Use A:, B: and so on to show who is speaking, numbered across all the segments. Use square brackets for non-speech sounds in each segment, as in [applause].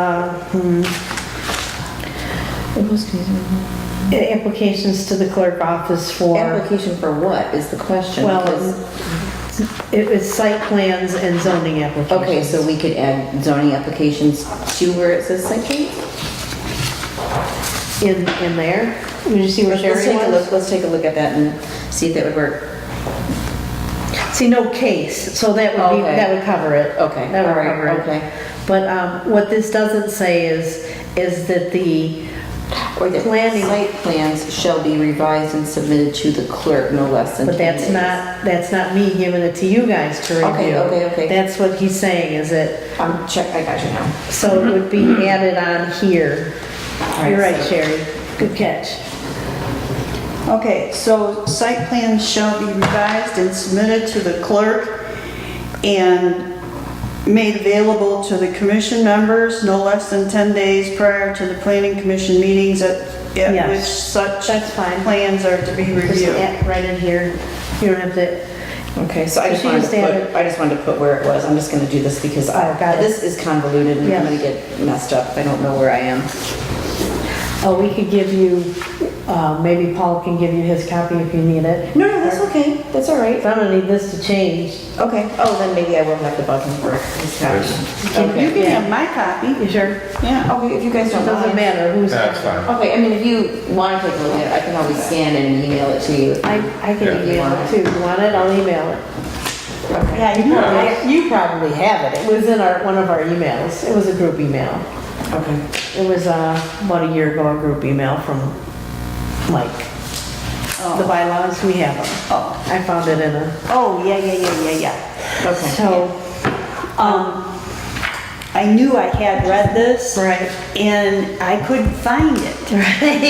A: uh, hmm,
B: It was confusing.
A: Applications to the clerk office for,
B: Application for what is the question?
A: well,
B: Because-
A: it was site plans and zoning applications.
B: Okay, so we could add zoning applications to where it says site plan?
A: In, in there, would you see where
B: Let's let's
A: Sherry
B: take a
A: was?
B: look, let's take a look at that and see if that would work.
A: See, no case, so that would be,
B: Okay.
A: that would cover it.
B: Okay,
A: That would
B: all right,
A: cover it.
B: okay.
A: But, um, what this doesn't say is, is that the
B: Or that
A: Planning.
B: site plans shall be revised and submitted to the clerk no less than
A: But
B: 10
A: that's
B: days.
A: not, that's not me giving it to you guys to review.
B: Okay, okay, okay.
A: That's what he's saying, is that,
B: I'm check, I got you now.
A: so it would be added on here.
B: Mm-hmm. right,
A: You're right,
B: so-
A: Sherry, good catch.
C: Okay, so site plans shall be revised and submitted to the clerk and made available to the commission members no less than 10 days prior to the planning commission meetings at
A: Yes.
C: at which such
A: That's fine.
C: plans are to be
A: Just
C: reviewed.
A: add right in here, you don't have to,
B: Okay, so I just
A: She
B: wanted to
A: just added-
B: put, I just wanted to put where it was. I'm just gonna do this because I,
A: Oh, got it.
B: this is convoluted and
A: Yeah.
B: I'm gonna get messed up. I don't know where I am.
A: oh, we could give you, uh, maybe Paul can give you his copy if you need it.
B: No, no, that's okay. That's all right.
A: If I'm gonna need this to change,
B: Okay, oh, then maybe I will have to bug him for his copy.
C: You
B: Okay,
C: can have my copy,
A: you sure?
C: yeah.
B: okay, if you guys don't
A: Doesn't
B: mind.
A: matter who's.
D: Yeah, it's fine.
B: Okay, I mean, if you want to take a look at it, I can always scan it and email it to you.
A: I, I
D: Yeah.
A: can email it too, you want it, I'll email it.
B: Okay.
A: Yeah, you probably, you probably have it. It was in our, one of our emails. It was a group email.
B: Okay.
A: It was uh, about a year ago, a group email from Mike. The bylaws, we have them.
C: Oh,
A: I found it in a,
C: Oh, yeah, yeah, yeah, yeah, yeah.
B: Okay.
A: so,
C: Um, I knew I had read this.
A: right.
C: And I couldn't find it.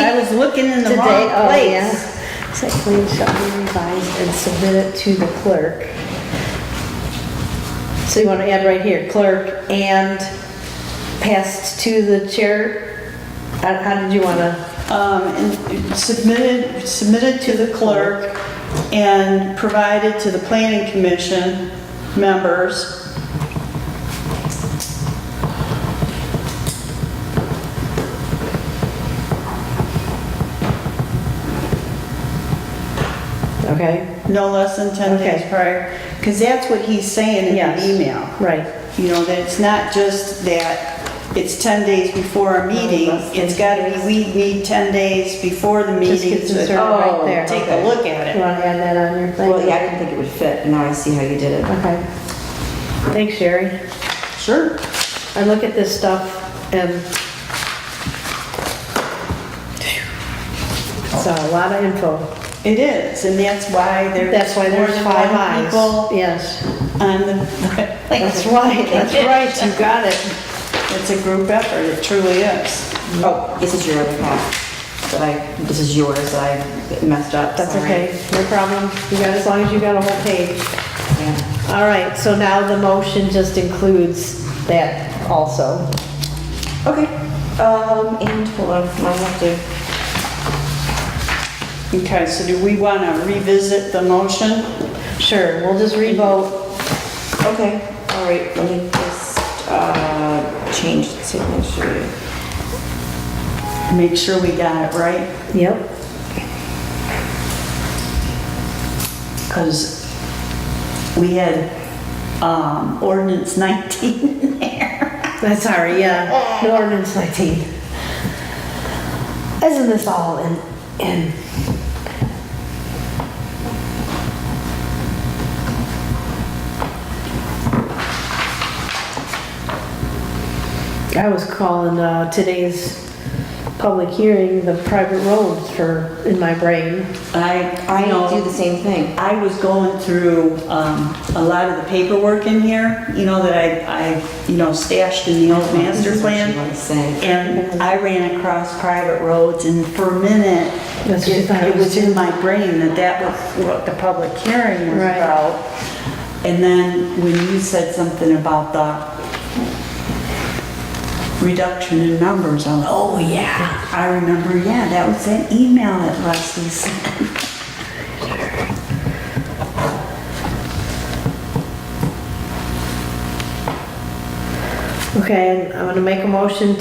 C: I was looking in [laughs] the
A: Today,
C: wrong
A: oh, yeah.
C: place.
A: Site plan shall be revised and submitted to the clerk. So you want to add right here, clerk and passed to the chair? How how did you want to?
C: um, and submitted, submitted to the clerk and provided to the planning commission members.
A: Okay,
C: No less than 10 days
A: Okay.
C: prior, because that's what he's saying in
A: Yes.
C: the email.
A: right.
C: You know, that it's not just that it's 10 days before a meeting,
A: less than
C: it's got to be, we need 10 days before the
A: Just
C: meeting
A: gets inserted
C: to
A: right there.
C: take a look at
A: You
C: it.
A: want to add that on your thing?
B: Well, yeah, I didn't think it would fit. Now I see how you did it.
A: Okay. Thanks, Sherry.
C: Sure.
A: I look at this stuff and it's a lot of info.
C: It is, and that's why there's.
A: That's why
C: more
A: there's
C: than
A: five
C: one
A: eyes.
C: People
A: Yes,
C: on the.
A: that's right, that's right, you got it.
C: It's a group effort, it truly is.
B: Oh, this is your other half. That I, this is yours that I messed up.
A: That's
B: Sorry.
A: okay, no problem. You got, as long as you got a whole page.
B: Yeah.
A: All right, so now the motion just includes that also.
B: Okay, um, and hold on, I have to.
C: Okay, so do we want to revisit the motion?
A: Sure, we'll just revote.
B: Okay, all right, let me just, uh, change the signature.
C: Make sure we got it right,
A: Yep.
C: because we had um, ordinance [laughs] 19 in there.
A: That's sorry, yeah, the ordinance 19. Isn't this all in, in? I was calling uh, today's public hearing the private roads for, in my brain.
C: I,
B: I
C: I
B: do the
C: know,
B: same thing.
C: I was going through um, a lot of the paperwork in here, you know, that I, I, you know, stashed in the old master
B: That's what
C: plan.
B: I say.
C: And I ran across private roads and for a minute,
A: That's what you thought it
C: it
A: was.
C: was in my brain that that was what the public hearing was
A: Right.
C: about. And then when you said something about the reduction in numbers, I was, oh yeah, I remember, yeah, that was that email that Leslie sent.
A: Okay, I'm gonna make a motion